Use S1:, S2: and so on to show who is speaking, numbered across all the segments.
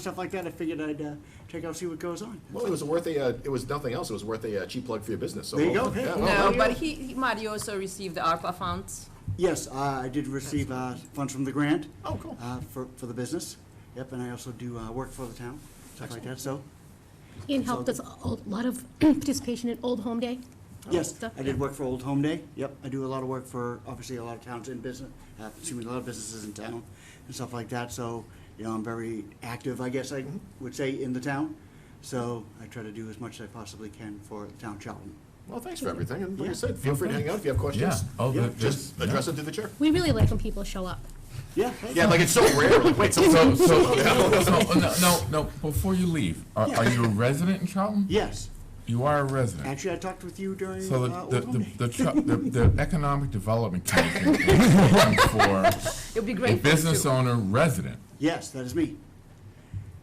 S1: stuff like that, I figured I'd uh, check out, see what goes on.
S2: Well, it was worth a, uh, it was nothing else, it was worth a uh, cheap plug for your business, so.
S1: There you go.
S2: yeah,
S1: Hey.
S2: Oh, well,
S3: No,
S1: Mario?
S3: but he, he- Mario also received the ARPA funds.
S1: Yes, uh, I did receive uh, funds from the grant.
S2: Oh, cool.
S1: uh, For, for the business, yep, and I also do uh, work for the town, stuff like that, so,
S4: Ian helped us a lot of participation in Old Home Day.
S1: yes,
S4: Stuff,
S1: I did work for Old Home Day, yep, I do a lot of work for, obviously, a lot of towns in business, uh, excuse me, a lot of businesses in town and stuff like that, so, you know, I'm very active, I guess
S2: Mm-hmm.
S1: I would say, in the town, so I try to do as much as I possibly can for the town of Charlton.
S2: Well, thanks for everything, and like I
S1: Yeah.
S2: said, feel free to hang out if you have questions.
S5: Yeah. Oh,
S2: Yeah,
S5: that-
S2: Just
S5: that's-
S2: address it through the chair.
S4: We really like when people show up.
S1: Yeah, hey,
S2: Yeah, like it's so rare, like, wait, so,
S5: So, so, so, no, no, no, before you leave, are, are you a resident in Charlton?
S1: yes,
S5: You are a resident.
S1: actually, I talked with you during
S5: So
S1: uh,
S5: the,
S1: Old
S5: the,
S1: Home
S5: the,
S1: Day.
S5: the, Char- the, the Economic Development Commission is looking for
S3: It would be
S5: a
S3: great. for us
S5: business
S3: to-
S5: owner resident.
S1: Yes, that is me.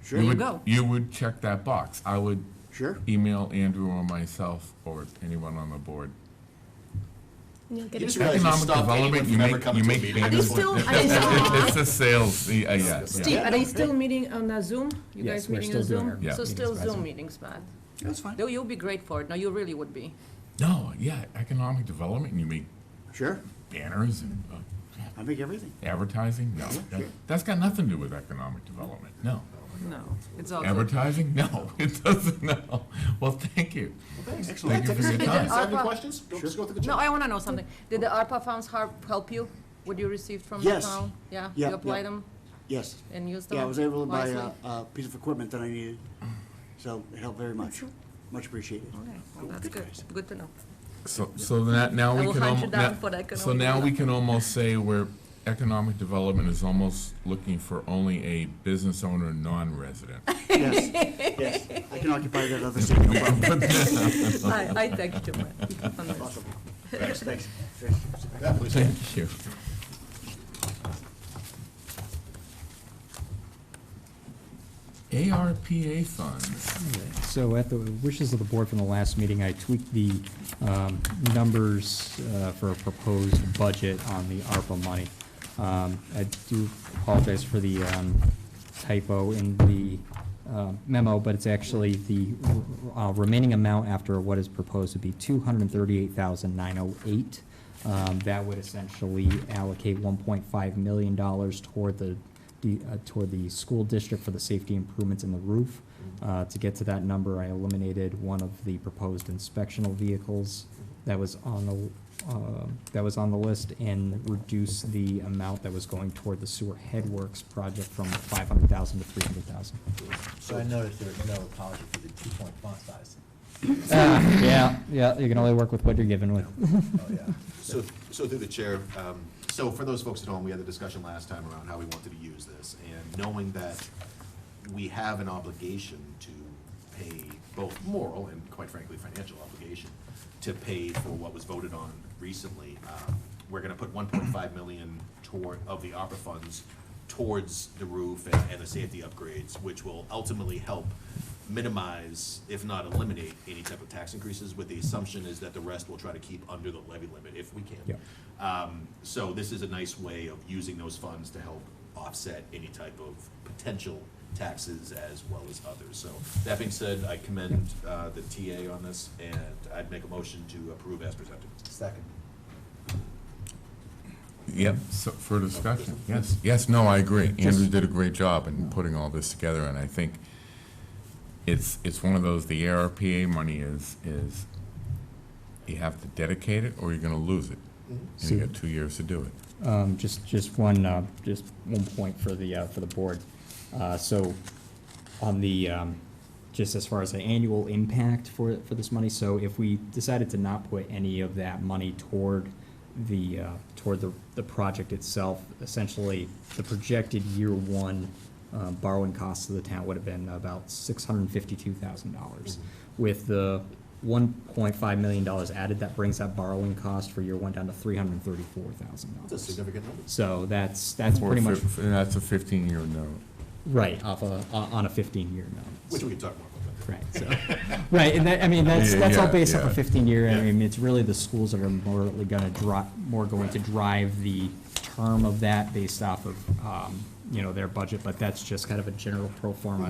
S1: Sure,
S5: You
S3: you
S5: would,
S3: go.
S5: you would check that box. I would
S1: sure.
S5: email Andrew or myself or anyone on the board.
S4: and you'll get
S2: You
S4: a-
S2: just realize you
S5: Economic
S2: stopped anyone
S5: development, you
S2: from ever
S5: make, you
S2: coming to a
S5: make
S2: meeting.
S4: Are
S5: banners.
S4: they still, are they
S5: It-
S4: still,
S5: It's a sales, yeah, yeah,
S3: Steve,
S5: yeah.
S3: are they still meeting on uh, Zoom? You
S6: Yes,
S3: guys
S6: we're
S3: meeting on
S6: still
S3: Zoom?
S6: doing our
S5: Yeah.
S3: So
S6: meetings
S3: still
S6: by
S3: Zoom
S6: Zoom.
S3: means, Matt.
S1: That's fine.
S3: No, you'll be great for it. No, you really would be.
S5: No, yeah, economic development, and you make
S1: Sure.
S5: banners and, uh,
S1: I make everything.
S5: Advertising? No. That- That's got nothing to do with economic development. No.
S3: No, it's all good.
S5: Advertising? No, it doesn't, no. Well, thank you.
S1: Excellent.
S5: Thank you for your
S2: Take a
S5: time.
S2: seat. Have any
S3: Arpa-
S2: questions? Go- Just go through the
S3: No,
S2: chair.
S3: I want to know something. Did the ARPA funds help, help you? What you received from the
S1: Yes.
S3: town? Yeah,
S1: Yeah,
S3: you applied
S1: yeah.
S3: them
S1: Yes.
S3: and used them
S1: Yeah, I was able to buy a,
S3: wisely?
S1: a piece of equipment that I needed, so it helped very much. Much appreciated.
S3: Okay, well, that's
S1: Good
S3: good.
S1: guys.
S3: Good to know.
S5: So, so that, now
S3: I
S5: we
S3: will
S5: can.
S3: hunt you
S5: almo-
S3: down
S5: now-
S3: for the
S5: So
S3: economic
S5: now we can almost say where economic development is almost looking for only a business owner, non-resident.
S1: Yes, yes. I can occupy that other seat, no problem.
S3: I, I thank you, Matt. on this.
S1: Awesome. Thanks, thanks. Thanks.
S2: Yeah, please.
S5: Thank you. ARPA funds.
S6: So at the wishes of the board from the last meeting, I tweaked the um, numbers uh, for a proposed budget on the ARPA money. Um, I do apologize for the um, typo in the uh, memo, but it's actually the uh, remaining amount after what is proposed to be two hundred and thirty-eight thousand nine oh eight. Um, That would essentially allocate one point five million dollars toward the the, uh, toward the school district for the safety improvements in the roof. Uh, To get to that number, I eliminated one of the proposed inspectional vehicles that was on the, uh, that was on the list and reduced the amount that was going toward the sewer headworks project from five hundred thousand to three hundred thousand.
S7: So I noticed there was no apology for the two-point font size.
S6: Yeah, yeah, you can only work with what you're given with.
S7: Oh, yeah.
S2: So, so through the chair, um, so for those folks at home, we had the discussion last time around how we wanted to use this, and knowing that we have an obligation to pay both moral and quite frankly, financial obligation to pay for what was voted on recently, um, we're gonna put one point five million toward, of the opera funds towards the roof and, and the safety upgrades, which will ultimately help minimize, if not eliminate, any type of tax increases, with the assumption is that the rest we'll try to keep under the levy limit if we can.
S6: Yep.
S2: Um, so this is a nice way of using those funds to help offset any type of potential taxes as well as others. So that being said, I commend, uh, the TA on this, and I'd make a motion to approve as presented.
S7: Second.
S5: Yep, so for discussion, yes, yes, no, I agree. Andrew did a great job in putting all this together, and I think it's, it's one of those, the ARPA money is, is you have to dedicate it or you're gonna lose it. And you got two years to do it.
S6: Um, just, just one, uh, just one point for the, uh, for the board. Uh, so on the, um, just as far as the annual impact for, for this money, so if we decided to not put any of that money toward the, uh, toward the, the project itself, essentially, the projected year one, uh, borrowing costs of the town would have been about six hundred and fifty-two thousand dollars. With the one point five million dollars added, that brings that borrowing cost for year one down to three hundred and thirty-four thousand dollars.
S2: That's a significant number.
S6: So that's, that's
S5: Or
S6: pretty much,
S5: fif- and That's a fifteen-year note.
S6: right, off a, on on a fifteen-year note.
S2: Which we can talk more about that.
S6: Right, so, right, and that, I mean, that's,
S5: Yeah,
S6: that's all
S5: yeah,
S6: based off
S5: yeah.
S6: a fifteen-year, I
S2: Yeah.
S6: mean, it's really the schools that are more gonna drop, more going to drive the term of that based off of, um, you know, their budget, but that's just kind of a general pro forma